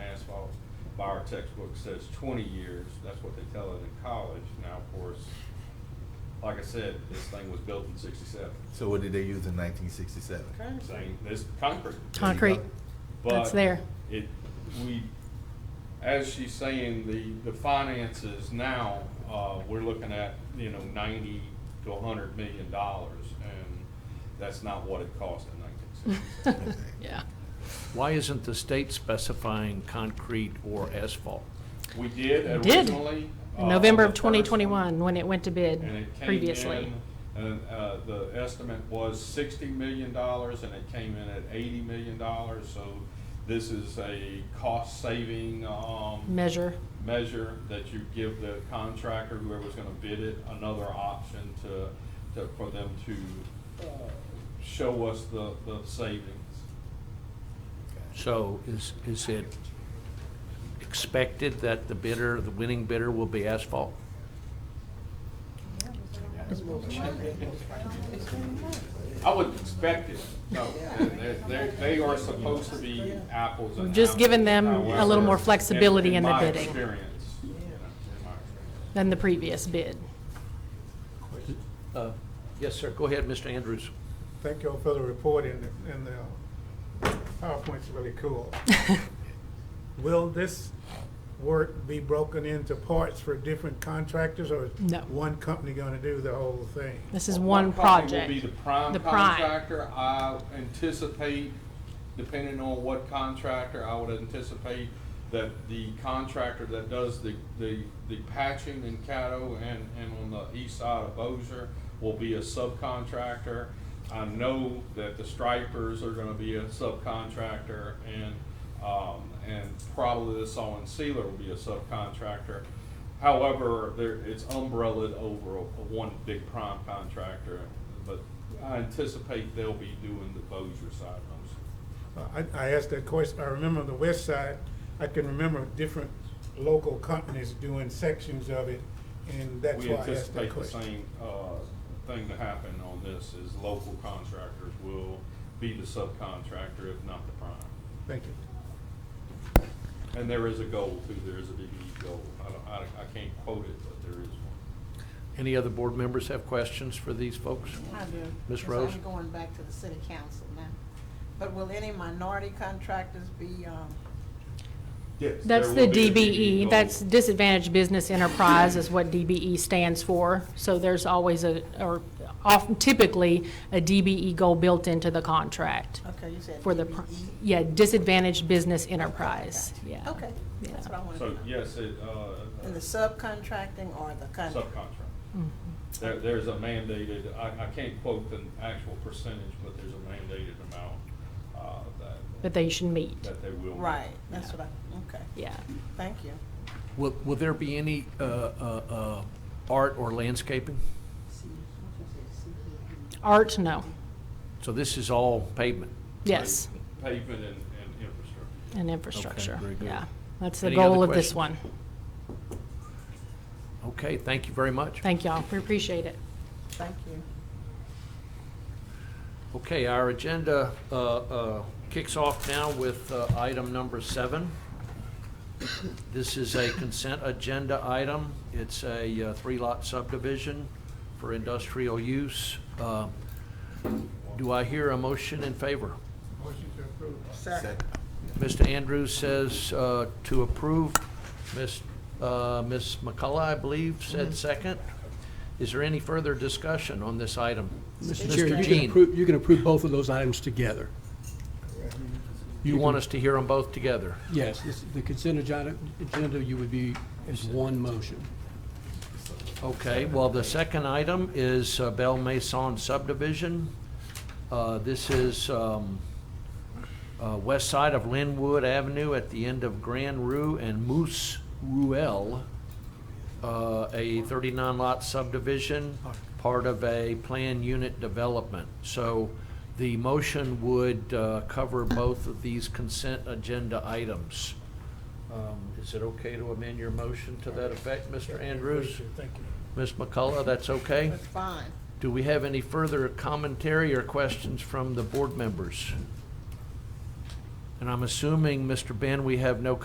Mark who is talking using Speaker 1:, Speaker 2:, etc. Speaker 1: by our textbook says twenty years, that's what they tell it in college. Now, of course, like I said, this thing was built in sixty-seven.
Speaker 2: So what did they use in nineteen sixty-seven?
Speaker 1: Same thing, this concrete.
Speaker 3: Concrete,
Speaker 1: But
Speaker 3: That's there.
Speaker 1: It, we, as she's saying, the, the finances now, uh, we're looking at, you know, ninety to a hundred million dollars, and that's not what it cost in nineteen sixty.
Speaker 3: yeah.
Speaker 4: Why isn't the state specifying concrete or asphalt?
Speaker 1: We did
Speaker 3: Did.
Speaker 1: originally. uh,
Speaker 3: November of
Speaker 1: the first one,
Speaker 3: 2021, when it went to
Speaker 1: And
Speaker 3: bid
Speaker 1: it came
Speaker 3: previously.
Speaker 1: in, and, uh, the estimate was sixty million dollars, and it came in at eighty million dollars, so this is a cost-saving, um,
Speaker 3: Measure,
Speaker 1: measure that you give the contractor, whoever's gonna bid it, another option to, to, for them to, uh, show us the, the savings.
Speaker 4: So is, is it expected that the bidder, the winning bidder will be asphalt?
Speaker 1: I would expect it, no, they, they, they are supposed to be apples and
Speaker 3: We've just given them a
Speaker 1: apples.
Speaker 3: little more flexibility in the bidding.
Speaker 1: In my experience, you know, in my experience.
Speaker 3: than the previous bid.
Speaker 4: Uh, Yes, sir. Go ahead, Mr. Andrews.
Speaker 5: Thank y'all for the report and the, and the uh, PowerPoint's really cool. Will this work be broken into parts for different contractors or is
Speaker 3: No.
Speaker 5: one company gonna do the whole thing?
Speaker 3: This is one
Speaker 1: company Will be
Speaker 3: project.
Speaker 1: the prime
Speaker 3: The prime.
Speaker 1: contractor. I anticipate, depending on what contractor, I would anticipate that the contractor that does the, the, the patching in Caddo and, and on the east side of Bossier will be a subcontractor. I know that the stripers are gonna be a subcontractor and, um, and probably the saw and sealer will be a subcontractor. However, there, it's umbrellaed over a- a one big prime contractor, but I anticipate they'll be doing the Bossier side most.
Speaker 5: Uh, I, I asked that question, I remember on the west side, I can remember different local companies doing sections of it and that's
Speaker 1: We
Speaker 5: why I asked that
Speaker 1: anticipate the
Speaker 5: question.
Speaker 1: same, uh, thing to happen on this, is local contractors will be the subcontractor, if not the prime.
Speaker 5: Thank you.
Speaker 1: And there is a goal too, there is a DBE goal, I don't, I, I can't quote it, but there is one.
Speaker 4: Any other board members have questions for these folks?
Speaker 6: I do.
Speaker 4: Ms.
Speaker 6: because
Speaker 4: Rose?
Speaker 6: I'm going back to the city council now. But will any minority contractors be, um,
Speaker 1: Yes.
Speaker 3: That's the
Speaker 1: E
Speaker 3: DBE, that's Disadvantaged Business Enterprise is what DBE stands for. So there's always a, or often typically, a DBE goal built into the contract
Speaker 6: okay, you said E?
Speaker 3: for the,
Speaker 6: DBE?
Speaker 3: pr- yeah, Disadvantaged Business Enterprise, yeah.
Speaker 6: Okay, that's what I wanted to
Speaker 1: So,
Speaker 6: know.
Speaker 1: yes, it, uh.
Speaker 6: In the subcontracting or the contract?
Speaker 1: subcontract.
Speaker 3: Mm-hmm.
Speaker 1: There, there's a mandated, I, I can't quote the actual percentage, but there's a mandated amount, uh, that,
Speaker 3: That they should meet,
Speaker 1: that they will.
Speaker 6: Right, that's what I, okay,
Speaker 3: yeah.
Speaker 6: thank you.
Speaker 4: Will, will there be any uh, uh, uh, art or landscaping?
Speaker 3: Art, no,
Speaker 4: So this is all pavement.
Speaker 3: yes,
Speaker 1: Pavement and, and infrastructure.
Speaker 3: and infrastructure,
Speaker 4: very good.
Speaker 3: yeah. That's the
Speaker 4: Any other
Speaker 3: goal of this
Speaker 4: questions?
Speaker 3: one.
Speaker 4: Okay, thank you very much.
Speaker 3: Thank y'all, we appreciate it.
Speaker 6: Thank you.
Speaker 4: Okay, our agenda uh, uh, kicks off now with uh, item number seven. This is a consent agenda item. It's a uh, three-lot subdivision for industrial use. Uh, Do I hear a motion in favor?
Speaker 5: Motion to approve.
Speaker 2: Second.
Speaker 4: Mr. Andrews says uh, to approve. Ms. uh, Ms. McCullough, I believe,
Speaker 7: Mm-hmm.
Speaker 4: said second. Is there any further discussion on this item?
Speaker 7: Mr. Chair, you can
Speaker 4: Jean.
Speaker 7: approve, you can approve both of those items together.
Speaker 4: You want us to hear them both together?
Speaker 7: Yes, this- the consent agenda, agenda you would be as one motion.
Speaker 4: Okay, well, the second item is uh, Belle Maison subdivision. Uh, This is um, uh, west side of Linwood Avenue at the end of Grand Rue and Moose Ruel, uh, a 39-lot subdivision, part of a planned unit development. So the motion would uh, cover both of these consent agenda items. Um, Is it okay to amend your motion to that effect, Mr. Andrews?
Speaker 5: Thank you.
Speaker 4: Ms. McCullough, that's okay?
Speaker 6: That's fine.
Speaker 4: Do we have any further commentary or questions from the board members? And I'm assuming, Mr. Ben, we have no